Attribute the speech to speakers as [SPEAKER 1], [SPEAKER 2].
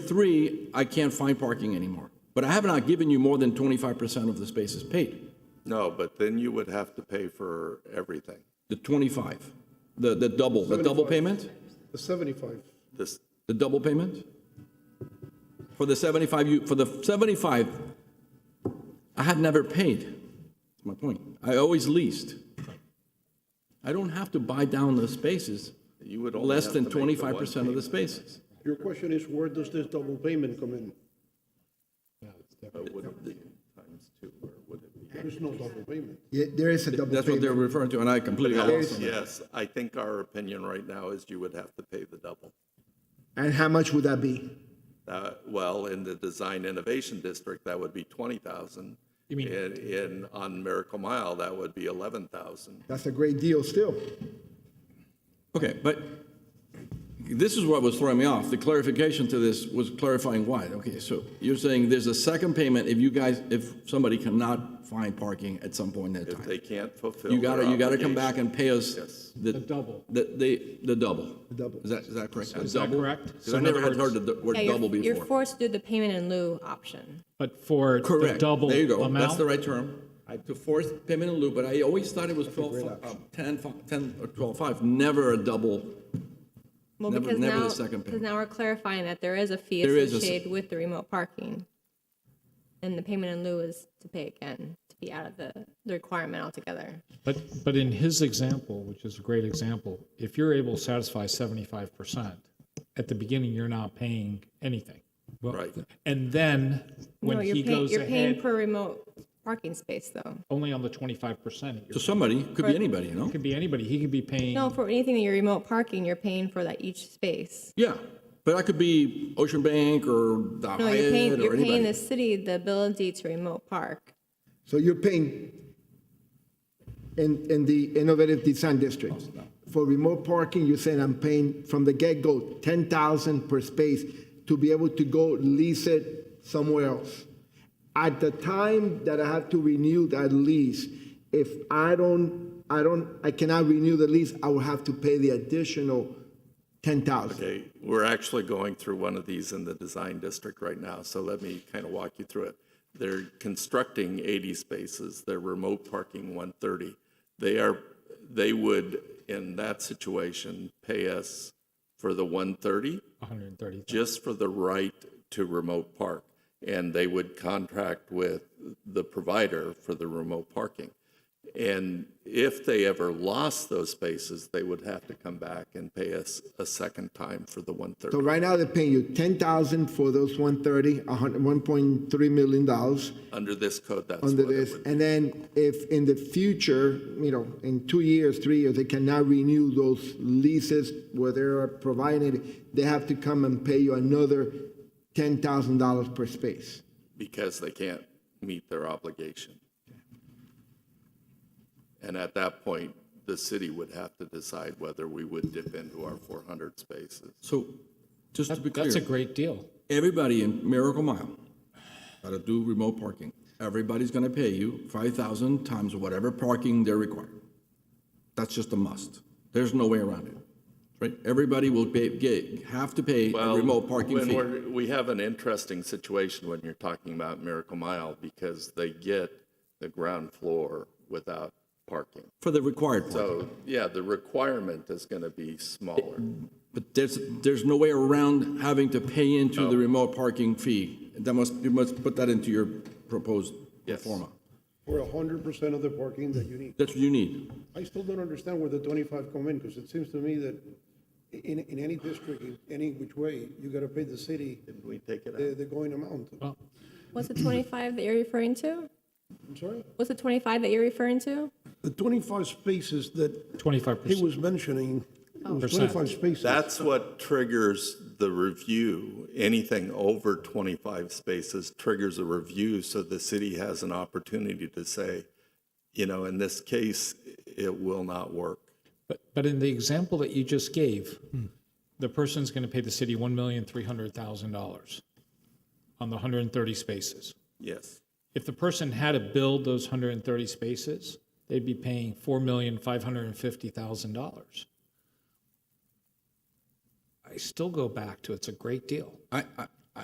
[SPEAKER 1] three, I can't find parking anymore. But I have not given you more than 25% of the spaces paid,
[SPEAKER 2] No, but then you would have to pay for everything.
[SPEAKER 1] the 25, the, the double, the double
[SPEAKER 3] 75.
[SPEAKER 1] payment?
[SPEAKER 3] The 75.
[SPEAKER 2] This,
[SPEAKER 1] The double payment? For the 75, you, for the 75, I had never paid. That's my point. I always leased. I don't have to buy down the spaces,
[SPEAKER 2] you would only
[SPEAKER 1] less
[SPEAKER 2] have to
[SPEAKER 1] than
[SPEAKER 2] make the one
[SPEAKER 1] 25% of the
[SPEAKER 2] payment.
[SPEAKER 1] spaces.
[SPEAKER 3] Your question is, where does this double payment come in?
[SPEAKER 2] It wouldn't be times two, or would it be?
[SPEAKER 3] There's no double payment.
[SPEAKER 4] Yeah, there is a double
[SPEAKER 1] That's what they're
[SPEAKER 4] payment.
[SPEAKER 1] referring to, and I completely lost on that.
[SPEAKER 2] Yes, I think our opinion right now is you would have to pay the double.
[SPEAKER 4] And how much would that be?
[SPEAKER 2] Uh, Well, in the Design Innovation District, that would be 20,000. You mean? In, in- on Miracle Mile, that would be 11,000.
[SPEAKER 4] That's a great deal still.
[SPEAKER 1] Okay, but this is what was throwing me off. The clarification to this was clarifying why. Okay, so you're saying there's a second payment if you guys, if somebody cannot find parking at some point in that
[SPEAKER 2] If
[SPEAKER 1] time.
[SPEAKER 2] they can't fulfill
[SPEAKER 1] You
[SPEAKER 2] their
[SPEAKER 1] gotta, you gotta come
[SPEAKER 2] obligation.
[SPEAKER 1] back and pay us
[SPEAKER 2] Yes.
[SPEAKER 1] the. double. The, the, the double.
[SPEAKER 4] double.
[SPEAKER 1] Is that, is that correct?
[SPEAKER 5] Is that correct?
[SPEAKER 1] Because
[SPEAKER 5] So
[SPEAKER 1] I
[SPEAKER 5] in
[SPEAKER 1] never
[SPEAKER 5] other
[SPEAKER 1] had heard
[SPEAKER 5] words-
[SPEAKER 1] the d- word
[SPEAKER 6] Yeah, you're-
[SPEAKER 1] double
[SPEAKER 6] You're
[SPEAKER 1] before.
[SPEAKER 6] forced to do the payment in lieu option.
[SPEAKER 5] But for the
[SPEAKER 1] Correct.
[SPEAKER 5] double
[SPEAKER 1] There you go. That's the
[SPEAKER 5] amount,
[SPEAKER 1] right term. To force payment in lieu, but I always thought it was twelve, uh, ten, fi- ten or twelve five, never a double.
[SPEAKER 6] Well,
[SPEAKER 1] Never-
[SPEAKER 6] because
[SPEAKER 1] never the
[SPEAKER 6] now-
[SPEAKER 1] second payment.
[SPEAKER 6] Because now we're clarifying that there is a fee
[SPEAKER 1] There is a s-
[SPEAKER 6] associated with the remote parking. And the payment in lieu is to pay again, to be out of the, the requirement altogether.
[SPEAKER 5] but, but in his example, which is a great example, if you're able to satisfy seventy-five percent, at the beginning, you're not paying anything. Well,
[SPEAKER 2] Right.
[SPEAKER 5] And then,
[SPEAKER 6] No,
[SPEAKER 5] when
[SPEAKER 6] you're
[SPEAKER 5] he
[SPEAKER 6] paying-
[SPEAKER 5] goes
[SPEAKER 6] You're paying
[SPEAKER 5] ahead,
[SPEAKER 6] per remote parking space, though.
[SPEAKER 5] only on the twenty-five percent,
[SPEAKER 1] So
[SPEAKER 5] it
[SPEAKER 1] somebody, could be anybody, you know?
[SPEAKER 5] could be anybody, he could be paying,
[SPEAKER 6] No, for anything that you're remote parking, you're paying for that each space.
[SPEAKER 1] Yeah, but I could be Ocean Bank or the
[SPEAKER 6] No, you're
[SPEAKER 1] Hyatt
[SPEAKER 6] paying,
[SPEAKER 1] or
[SPEAKER 6] you're paying the
[SPEAKER 1] anybody.
[SPEAKER 6] city the ability to remote park.
[SPEAKER 4] So you're paying in, in the innovative design district.
[SPEAKER 1] Oh,
[SPEAKER 4] For remote parking, you're saying I'm paying from the get-go, ten thousand per space to be able to go lease it somewhere else. At the time that I have to renew that lease, if I don't, I don't, I cannot renew the lease, I will have to pay the additional ten thousand.
[SPEAKER 2] Okay, we're actually going through one of these in the design district right now, so let me kind of walk you through it. They're constructing 80 spaces, they're remote parking 130. They are, they would, in that situation, pay us for the 130
[SPEAKER 5] hundred and thirty.
[SPEAKER 2] just for the right to remote park. And they would contract with the provider for the remote parking. And if they ever lost those spaces, they would have to come back and pay us a second time for the 130
[SPEAKER 4] So right now, they're paying you ten thousand for those one thirty, a hundred, one point three million dollars.
[SPEAKER 2] under this code. That's
[SPEAKER 4] under
[SPEAKER 2] what it
[SPEAKER 4] this,
[SPEAKER 2] would be.
[SPEAKER 4] and then if in the future, you know, in two years, three years, they cannot renew those leases where they're provided, they have to come and pay you another ten thousand dollars per space.
[SPEAKER 2] because they can't meet their obligation. And at that point, the city would have to decide whether we would dip into our 400 spaces.
[SPEAKER 1] So, just to be clear.
[SPEAKER 5] That's a great deal.
[SPEAKER 1] everybody in Miracle Mile that'll do remote parking, everybody's gonna pay you five thousand times whatever parking they're required. That's just a must. There's no way around it, right? Everybody will pay, get, have to pay a
[SPEAKER 2] Well,
[SPEAKER 1] remote parking
[SPEAKER 2] when
[SPEAKER 1] fee.
[SPEAKER 2] we're- We have an interesting situation when you're talking about Miracle Mile because they get the ground floor without parking.
[SPEAKER 1] For the required part,
[SPEAKER 2] So, yeah, the requirement is going to be smaller.
[SPEAKER 1] but there's, there's no way around having to pay into the remote parking fee. That must, you must put that into your proposed pro
[SPEAKER 2] Yes.
[SPEAKER 1] forma.
[SPEAKER 3] For 100% of the parking that you need.
[SPEAKER 1] That's what you need.
[SPEAKER 3] I still don't understand where the 25 come in, because it seems to me that in, in any district, in any which way, you gotta pay the city
[SPEAKER 2] We take it
[SPEAKER 3] the,
[SPEAKER 2] out.
[SPEAKER 3] the going amount.
[SPEAKER 6] What's the 25 that you're referring to?
[SPEAKER 3] I'm sorry?
[SPEAKER 6] What's the 25 that you're referring to?
[SPEAKER 3] The 25 spaces that
[SPEAKER 5] Twenty-five
[SPEAKER 3] he
[SPEAKER 5] percent.
[SPEAKER 3] was mentioning, it was
[SPEAKER 5] Percent.
[SPEAKER 3] 25 spaces.
[SPEAKER 2] That's what triggers the review. Anything over 25 spaces triggers a review, so the city has an opportunity to say, you know, in this case, it will not work.
[SPEAKER 5] But, but in the example that you just gave, the person's going to pay the city one million three hundred thousand dollars on the hundred and thirty spaces.
[SPEAKER 2] Yes.
[SPEAKER 5] If the person had to build those hundred and thirty spaces, they'd be paying four million five hundred and fifty thousand dollars. I still go back to it's a great deal.
[SPEAKER 1] I, I,